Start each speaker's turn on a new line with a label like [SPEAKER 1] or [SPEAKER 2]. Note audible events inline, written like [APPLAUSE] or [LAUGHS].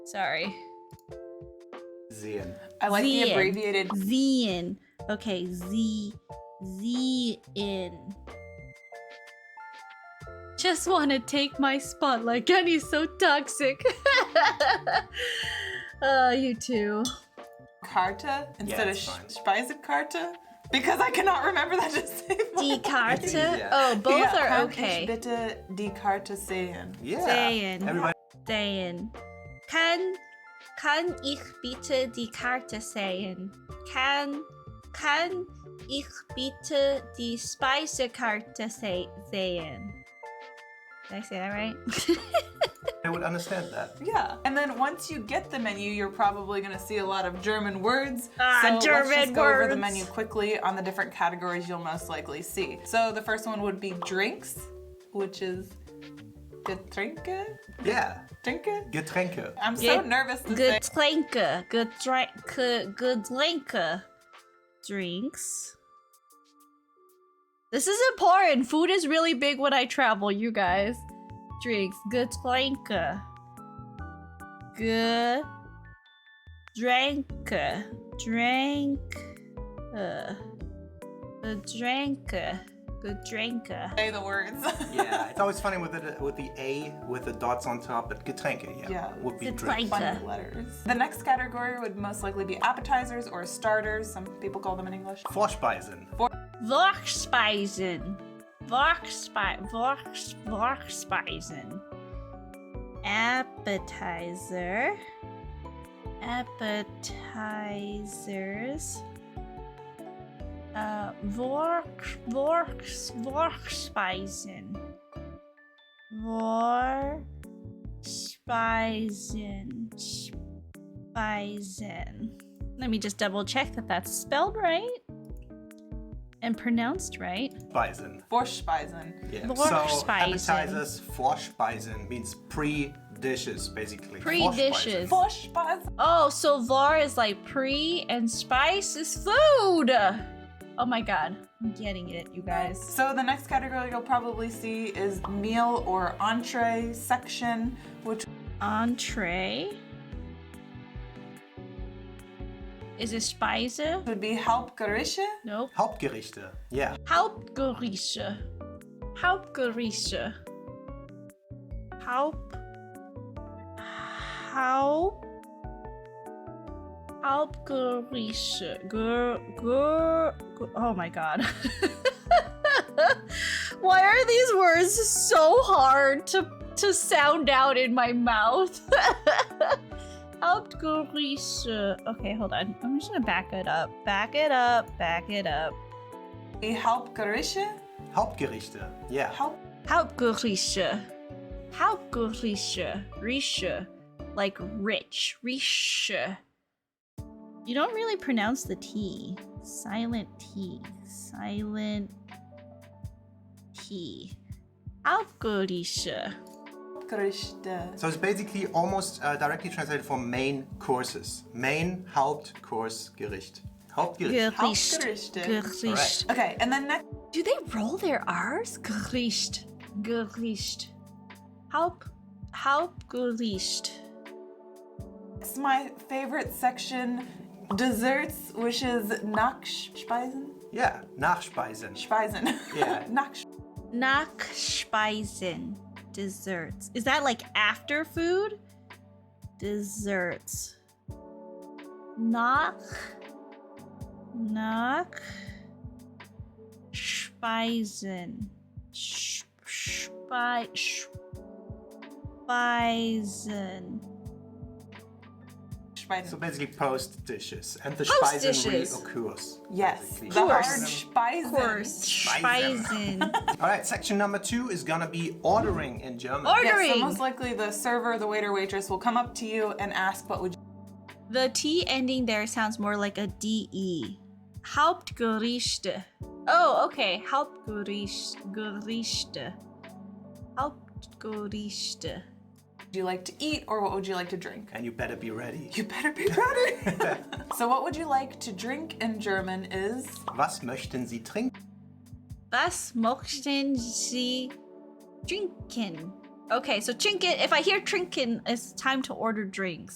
[SPEAKER 1] Sorry.
[SPEAKER 2] Zian.
[SPEAKER 3] I like the
[SPEAKER 1] Zian.
[SPEAKER 3] abbreviated.
[SPEAKER 1] Zian. Okay, Z Z in. Just wanna take my spot like Kenny's so toxic. [LAUGHS] uh you [LAUGHS] two.
[SPEAKER 3] Carta instead
[SPEAKER 2] it's fine.
[SPEAKER 3] of Speisekarta because I cannot remember that [LAUGHS] to save.
[SPEAKER 1] Die Karte?
[SPEAKER 2] Yeah.
[SPEAKER 1] Oh, both
[SPEAKER 3] yeah,
[SPEAKER 1] are
[SPEAKER 3] kann Ich
[SPEAKER 1] okay.
[SPEAKER 3] bitte die Karte sehen.
[SPEAKER 2] Yeah.
[SPEAKER 1] Zian.
[SPEAKER 2] Everybody
[SPEAKER 1] Sehen. Kann kann ich bitte die Karte sehen? Kann kann ich bitte die Speisekarte se sehen? Did I say that right? [LAUGHS]
[SPEAKER 2] would understand that.
[SPEAKER 3] Yeah. And then once you get the menu, you're probably going to see a lot of German words.
[SPEAKER 1] Ah,
[SPEAKER 3] so let's
[SPEAKER 1] German
[SPEAKER 3] just go over the
[SPEAKER 1] words.
[SPEAKER 3] menu quickly on the different categories you'll most likely see. So the first one would be drinks, which is Getränke.
[SPEAKER 2] Yeah.
[SPEAKER 3] Trinke.
[SPEAKER 2] Getränke.
[SPEAKER 3] I'm so
[SPEAKER 1] Get-
[SPEAKER 3] nervous to say.
[SPEAKER 1] Getränke, Getränke, Getränke, drinks. This is important. Food is really big when I travel, you guys. Drinks, Getränke, Getränke, drink, uh, Getränke, Getränke.
[SPEAKER 3] Say the words. [LAUGHS]
[SPEAKER 2] Yeah. It's always funny with the with the A with the dots on top, but Getränke, yeah.
[SPEAKER 3] Yeah.
[SPEAKER 2] Would be drink.
[SPEAKER 1] Getränke.
[SPEAKER 3] Funny letters. The next category would most likely be appetizers or starters. Some people call them in English.
[SPEAKER 2] Vorspeisen.
[SPEAKER 1] Vorkspeisen. Vorkspe Vorks Vorkspeisen. Appetizer. Appetizers. Uh, Vork Vorks Vorkspeisen. Vorkspeisen. Speisen. Let me just double check that that's spelled right and pronounced right.
[SPEAKER 2] Speisen.
[SPEAKER 3] Vorspeisen.
[SPEAKER 2] Yeah. So
[SPEAKER 1] Vorspeisen.
[SPEAKER 2] appetizers, Vorspeisen means pre dishes basically.
[SPEAKER 1] Pre
[SPEAKER 2] Vorspeisen.
[SPEAKER 1] dishes.
[SPEAKER 3] Vorspeisen.
[SPEAKER 1] Oh, so var is like pre and spice is food. Oh my god, I'm getting it, you guys.
[SPEAKER 3] So the next category you'll probably see is meal or entree section, which
[SPEAKER 1] Entree. Is it spice?
[SPEAKER 3] would be Hauptgerichte.
[SPEAKER 1] Nope.
[SPEAKER 2] Hauptgerichte. Yeah.
[SPEAKER 1] Hauptgerichte. Hauptgerichte. Haupt. Haupt. Hauptgerichte. Ger, ger, ger, oh my god. [LAUGHS] Why are these words so hard to, to sound out in my mouth? [LAUGHS] Hauptgerichte. Okay, hold on. I'm just gonna back it up. Back it up. Back it up.
[SPEAKER 3] Die Hauptgerichte.
[SPEAKER 2] Hauptgerichte. Yeah.
[SPEAKER 3] Haupt.
[SPEAKER 1] Hauptgerichte. Hauptgerichte. Rische. Like rich. Rische. You don't really pronounce the T. Silent T. Silent T. Hauptgerichte.
[SPEAKER 3] Hauptgerichte.
[SPEAKER 2] So it's basically almost uh, directly translated from main courses. Main Hauptkursgericht. Hauptgericht.
[SPEAKER 1] Gericht.
[SPEAKER 3] Hauptgerichte.
[SPEAKER 1] Gericht.
[SPEAKER 3] Okay, and then next
[SPEAKER 1] Do they roll their R's? Gericht. Gericht. Haupt. Hauptgericht.
[SPEAKER 3] is my favorite section, desserts, which is Nachspeisen.
[SPEAKER 2] Yeah. Nachspeisen.
[SPEAKER 3] Speisen. [LAUGHS]
[SPEAKER 2] Yeah.
[SPEAKER 3] Nach.
[SPEAKER 1] Nachspeisen. Desserts. Is that like after food? Desserts. Nach. Nach. Speisen. Sch- Spei. Speisen.
[SPEAKER 2] So
[SPEAKER 3] Speisen.
[SPEAKER 2] basically post dishes. And the
[SPEAKER 1] Post
[SPEAKER 2] Speisen
[SPEAKER 1] dishes.
[SPEAKER 2] reoccurs.
[SPEAKER 3] Yes.
[SPEAKER 2] basically.
[SPEAKER 3] The hard
[SPEAKER 1] Course.
[SPEAKER 3] Speisen.
[SPEAKER 1] Of course. Speisen.
[SPEAKER 2] All right, section number two is gonna be ordering in German.
[SPEAKER 1] Ordering.
[SPEAKER 3] Yeah, so most likely the server, the waiter, waitress will come up to you and ask what would you
[SPEAKER 1] The T ending there sounds more like a DE. Hauptgerichte. Oh, okay. Hauptgericht. Gerichte. Hauptgerichte.
[SPEAKER 3] would you like to eat or what would you like to drink? [LAUGHS]
[SPEAKER 2] and you better be ready.
[SPEAKER 3] You better be ready. so what would you like to drink in German is
[SPEAKER 2] Was möchten Sie trinken?
[SPEAKER 1] Was möchten Sie trinken? Okay, so trinken. If I hear trinken, it's time to order drinks.